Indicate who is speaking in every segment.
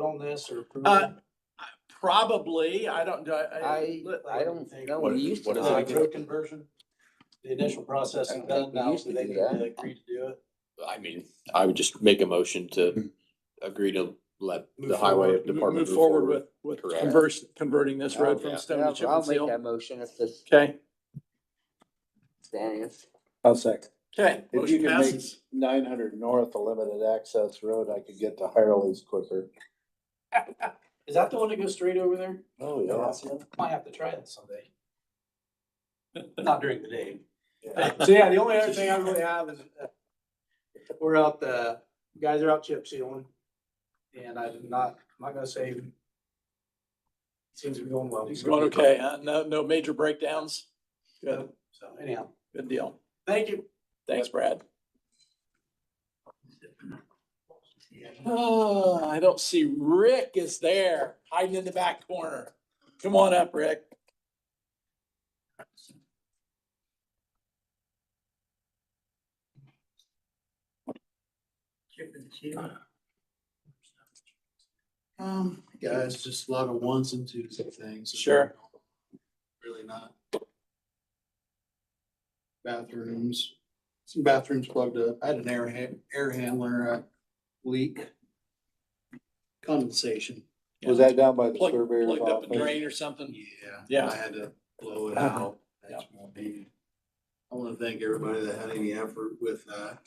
Speaker 1: on this or? approve
Speaker 2: Uh,
Speaker 1: it?
Speaker 2: Probably, I don't, I,
Speaker 3: I, I don't know, we used to.
Speaker 4: What
Speaker 3: do
Speaker 4: is
Speaker 1: Uh,
Speaker 4: it?
Speaker 3: that.
Speaker 1: Road conversion, the initial process
Speaker 3: I
Speaker 1: is
Speaker 3: think
Speaker 1: done
Speaker 3: we
Speaker 1: now,
Speaker 3: used
Speaker 1: so
Speaker 3: to
Speaker 1: they
Speaker 3: do
Speaker 1: can
Speaker 3: that.
Speaker 1: agree to do it.
Speaker 4: I mean, I would just make a motion to agree to let the
Speaker 2: Move
Speaker 4: highway
Speaker 2: forward-
Speaker 4: department.
Speaker 2: Move forward with, with
Speaker 4: Correct.
Speaker 2: converse, converting this road
Speaker 4: Yeah.
Speaker 2: from stone
Speaker 3: Oh, Yeah,
Speaker 2: to chip
Speaker 3: I'll
Speaker 2: and
Speaker 3: make
Speaker 2: seal.
Speaker 3: that motion if this
Speaker 2: Okay,
Speaker 3: stands.
Speaker 5: I'll second.
Speaker 2: okay.
Speaker 5: If you
Speaker 2: Motion
Speaker 5: can make-
Speaker 2: passes.
Speaker 5: Nine hundred north, a limited access road, I could get to Hireley's quicker.
Speaker 1: Is that the one that goes straight over there?
Speaker 5: Oh,
Speaker 1: Might have to try it someday. Not during the day.
Speaker 5: Yeah.
Speaker 1: So yeah, the only other thing I really have is, uh, we're out, uh, you guys are out chip sealing. And I'm not, I'm not gonna say. Seems to be going well.
Speaker 2: It's going okay, huh? No, no major breakdowns. Good,
Speaker 1: So anyhow,
Speaker 2: good deal.
Speaker 1: thank you.
Speaker 2: Thanks, Brad. Oh, I don't see Rick is there hiding in the back corner. Come on up, Rick.
Speaker 6: Um, guys, just a lot of ones and twos and things.
Speaker 2: Sure.
Speaker 6: Really not. Bathrooms, some bathrooms plugged up. I had an air ha- air handler uh, leak. Condensation.
Speaker 5: Was that down by the
Speaker 2: Plugged,
Speaker 5: surveyor's
Speaker 2: plugged up a
Speaker 5: office?
Speaker 2: drain or something?
Speaker 6: Yeah.
Speaker 2: Yeah. Uh-huh.
Speaker 6: I had to blow it out. That's my bad. I want to thank everybody that had any effort with that.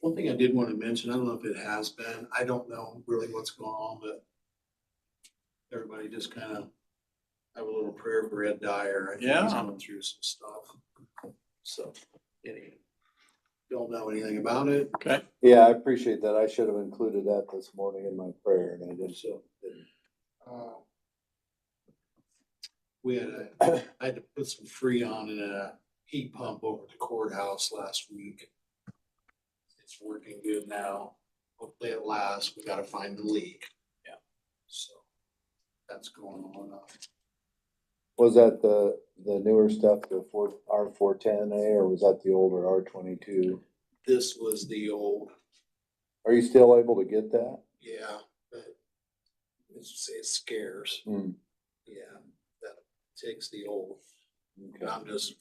Speaker 6: One thing I did want to mention, I don't know if it has been, I don't know really what's going on, but everybody just kind of Uh, have a little prayer for Ed Dyer. I think He's
Speaker 2: Yeah.
Speaker 6: going through some stuff. So, anyway, don't know anything about it.
Speaker 2: Okay.
Speaker 5: Yeah, I appreciate that. I should have included that this morning in my prayer and I just
Speaker 6: So,
Speaker 5: didn't.
Speaker 6: uh, We had a, I had to put some freon in a heat pump over at the courthouse last week. It's working good now. Hopefully it lasts. We gotta find the leak.
Speaker 2: Yeah.
Speaker 6: So that's going on.
Speaker 5: Was that the, the newer stuff, the four, R four ten A, or was that the older R twenty-two?
Speaker 6: This was the old,
Speaker 5: Are you still able to get that?
Speaker 6: yeah, but it's, it's scarce.
Speaker 5: Hmm.
Speaker 6: Yeah, that takes the old. And
Speaker 5: Okay.
Speaker 6: I'm just,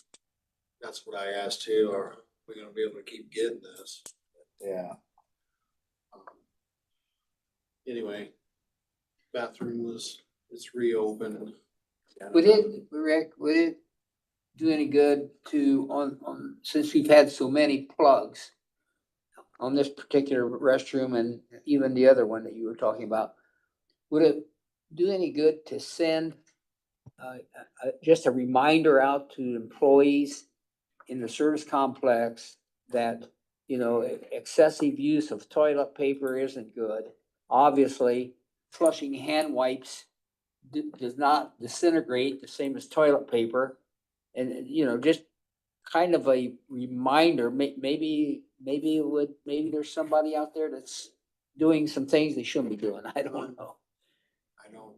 Speaker 6: that's what I asked too. Are we gonna be able to keep getting this?
Speaker 5: Yeah,
Speaker 6: Um, Anyway, bathroom was, it's reopened.
Speaker 3: Would it, Rick, would it do any good to, on, on, since we've had so many plugs on this particular restroom and even the other one that you were talking about, would it do any good to send uh, uh, just a reminder out to employees in the service complex that, you know, e-, excessive use of toilet paper isn't good. Obviously, flushing hand wipes d- does not disintegrate the same as toilet paper. And, uh, you know, just kind of a reminder, may, maybe, maybe it would, maybe there's somebody out there that's doing some things they shouldn't be doing. I don't know.
Speaker 6: I don't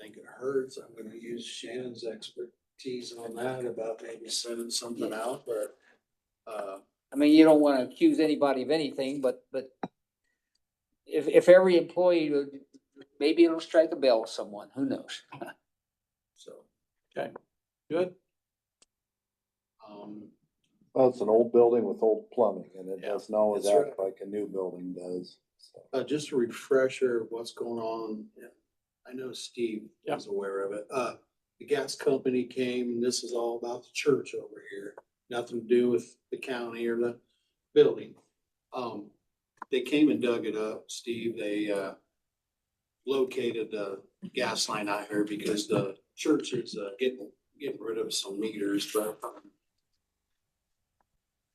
Speaker 6: think it hurts. I'm gonna use Shannon's expertise on that about maybe sending something out, but uh,
Speaker 3: I mean, you don't want to accuse anybody of anything, but, but if, if every employee, would- maybe it'll strike a bell with someone, who knows?
Speaker 6: so,
Speaker 2: Good.
Speaker 6: um,
Speaker 5: well, it's an old building with old plumbing and it
Speaker 2: Yeah,
Speaker 5: doesn't always
Speaker 6: that's
Speaker 5: act like a new building does. so.
Speaker 6: uh, just a refresher of what's going on. I know Steve
Speaker 2: Yeah.
Speaker 6: is aware of it. Uh, the gas company came, and this is all about the church over here, nothing to do with the county or the building. Um, they came and dug it up, Steve, they, uh, located the gas line out here because the church is, uh, getting, getting rid of some meters, but um,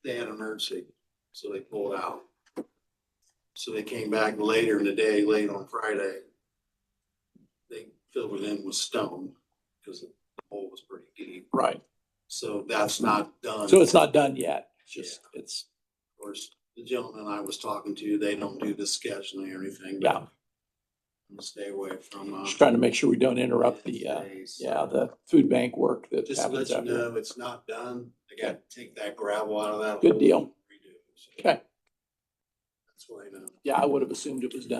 Speaker 6: they had an emergency, so they pulled out. So they came back later in the day, late on Friday, they filled it in with stone because the hole was pretty deep.
Speaker 2: Right.
Speaker 6: So that's not done.
Speaker 2: So it's not done yet. It's
Speaker 6: Yeah.
Speaker 2: Just, it's,
Speaker 6: Of course, the gentleman I was talking to, they don't do the scheduling or anything.
Speaker 2: yeah,
Speaker 6: but Stay away from. uh,
Speaker 2: just trying to make sure we don't interrupt the, uh,
Speaker 6: days.
Speaker 2: yeah, the food bank work that
Speaker 6: Just to let
Speaker 2: happens
Speaker 6: you
Speaker 2: out here.
Speaker 6: know, it's not done. I gotta take that gravel out of that.
Speaker 2: Good
Speaker 6: hole
Speaker 2: deal.
Speaker 6: and redo it. So
Speaker 2: Okay.
Speaker 6: That's what I know.
Speaker 2: Yeah, I would have assumed it was done.